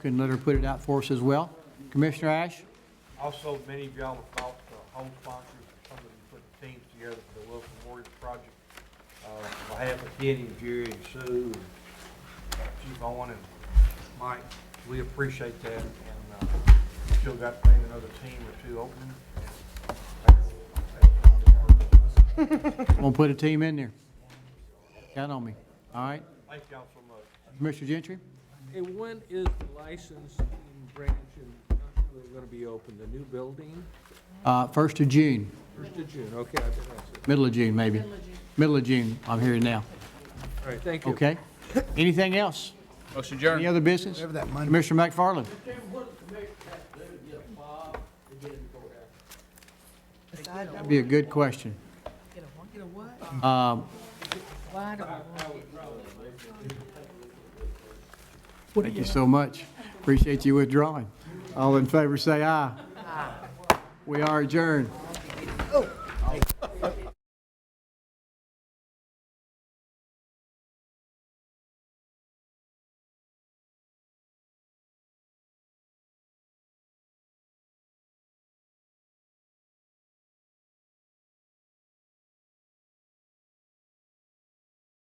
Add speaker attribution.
Speaker 1: Can let her put it out for us as well. Commissioner Ash?
Speaker 2: Also, many of y'all have thought, uh, home sponsors, some of you put teams together for the Wilson Warriors Project. Uh, on behalf of Kenny and Jerry and Sue and Chief Owen and Mike, we appreciate that. And, uh, still got maybe another team or two opening.
Speaker 1: Gonna put a team in there. Count on me. All right.
Speaker 2: Thank y'all so much.
Speaker 1: Commissioner Gentry?
Speaker 3: And when is the licensing branch in Knoxville going to be open, the new building?
Speaker 1: Uh, First of June,
Speaker 3: First of June, okay, I think that's it.
Speaker 1: middle of June, maybe. Middle of June, I'm hearing now.
Speaker 3: All right, thank you.
Speaker 1: Okay? Anything else?
Speaker 4: Motion
Speaker 1: Any
Speaker 4: adjourned.
Speaker 1: other business? Commissioner McFarland? That'd be a good question. Um, Thank you so much. Appreciate you withdrawing. All in favor, say aye. We are adjourned.